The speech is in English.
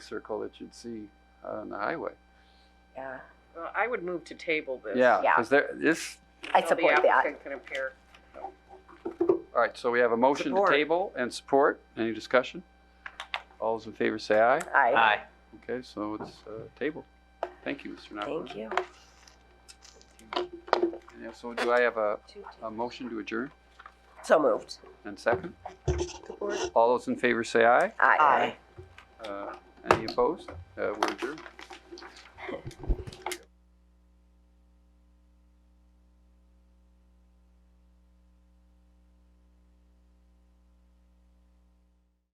circle that you'd see uh, on the highway. yeah, Well, I would move to table this. Yeah, Yeah. because there, this, I So support The that. applicant can appear. all right, so we have a motion to Support. table and support. Any discussion? All those in favor say aye. Aye, Okay, so it's uh, tabled. Thank you, Mr. Napoli. thank you. And so do I have a, a motion to adjourn So moved. and second? All those in favor say aye. Aye. Uh, Any opposed? Uh, We're adjourned.